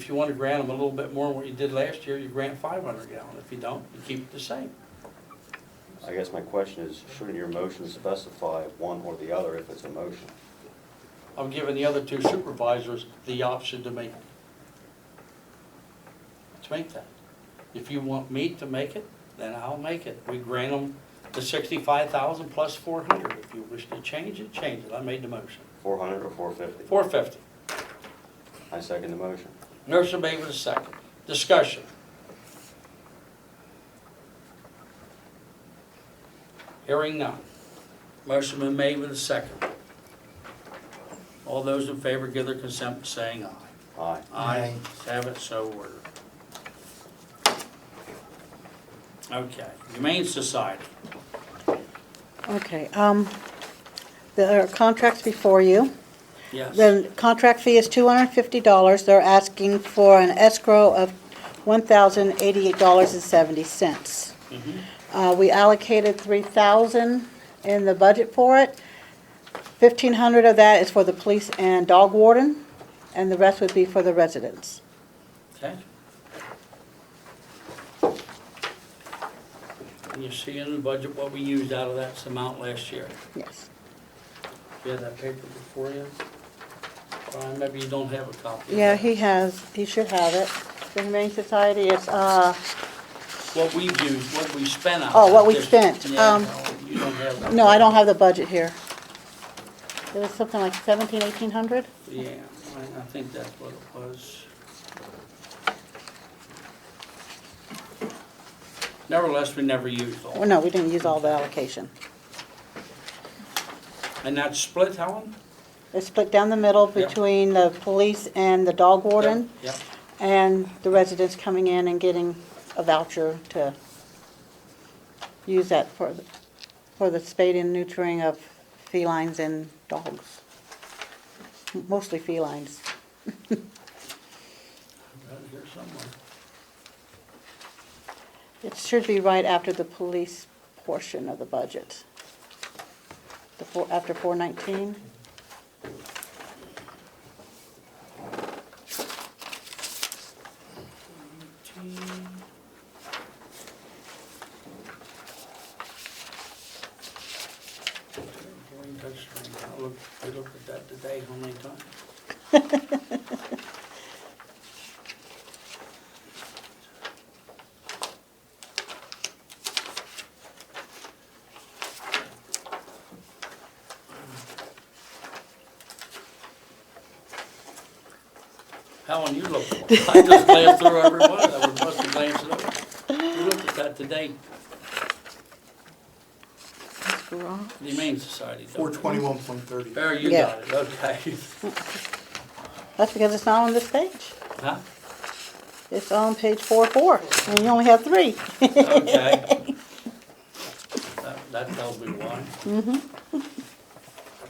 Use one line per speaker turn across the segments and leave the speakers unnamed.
If you want to grant them a little bit more than what you did last year, you grant five hundred gallon. If you don't, you keep it the same.
I guess my question is, shouldn't your motion specify one or the other if it's a motion?
I'm giving the other two supervisors the option to make it. To make that. If you want me to make it, then I'll make it. We grant them the sixty-five thousand plus four hundred. If you wish to change it, change it. I made the motion.
Four hundred or four fifty?
Four fifty.
I second the motion.
Nurse made with a second. Discussion. Hearing none. Motion been made with a second. All those in favor give their consent by saying aye.
Aye.
Aye. Have it so ordered. Okay, Humane Society.
Okay, um, there are contracts before you.
Yes.
The contract fee is two hundred and fifty dollars. They're asking for an escrow of one thousand eighty-eight dollars and seventy cents.
Mhm.
Uh, we allocated three thousand in the budget for it. Fifteen hundred of that is for the police and dog warden, and the rest would be for the residents.
Okay. And you see in the budget what we used out of that amount last year.
Yes.
You had that paper before you? Brian, maybe you don't have a copy. of
Yeah,
that.
he has, he should have it. The Humane Society, it's, uh,
What we used, what we spent out.
Oh,
of
what we
this-
spent,
Yeah,
um,
no, you don't have that.
No, I don't have the budget here. It was something like seventeen, eighteen hundred?
Yeah, I, I think that's what it was. Nevertheless, we never used all.
Well, no, we didn't use all the allocation.
And that split, Helen?
It's split down the middle
Yeah.
between the police and the dog warden,
Yep.
and the residents coming in and getting a voucher to use that for, the- for the spade and neutering of felines and dogs. Mostly felines.
I've got it here somewhere.
It should be right after the police portion of the budget. The four, after four nineteen.
I looked, I looked at that today, how many times? Helen, you looked, I just glanced through every one, I was supposed to glance it over. You looked at that today, the Humane Society. don't you?
Four twenty-one point thirty.
There, you
Yeah.
got it, okay.
That's because it's not on this page.
Huh?
It's on page four four, and you only have three.
Okay. That- That tells me why. Mm-hmm. I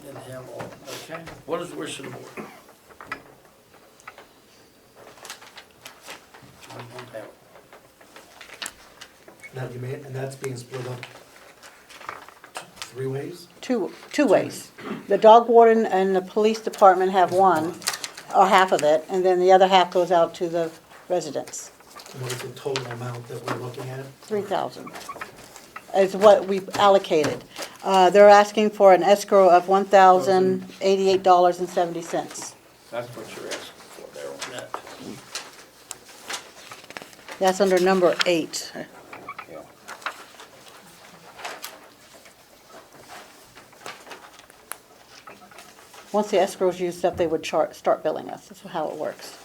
didn't have all, okay. What is the wish of the board? I don't have it.
Now, you may, and that's being split up t- three ways?
Two, two ways. The dog warden and the police department have one, or half of it, and then the other half goes out to the residents.
And What is the total amount that we're looking at?
Three thousand is what we allocated. Uh, they're asking for an escrow of one thousand eighty-eight dollars and seventy cents.
That's what you're asking for there on that.
That's under number eight.
Yeah.
Once the escrow's used up, they would chart, start billing us. That's how it works.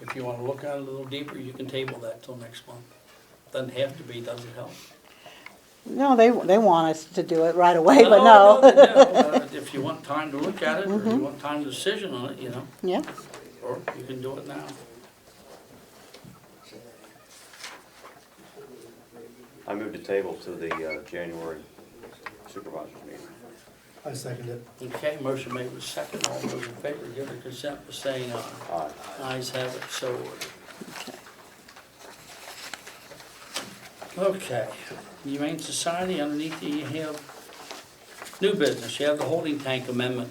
If you want to look at it a little deeper, you can table that till next month. Doesn't have to be, doesn't help.
No, they, they want us to do it right away, but
they
no. Mm-hmm.
don't. Uh, If you want time to look at it, or you want time to decision on it, you know,
Yeah,
or you can do it now.
I moved the table to the uh, January supervisors meeting.
I second it.
Okay, motion made with second, all those in favor give their consent by saying aye.
Aye.
Ayes have it, so ordered. Okay, Humane Society, underneath you you have New business, you have the holding tank amendment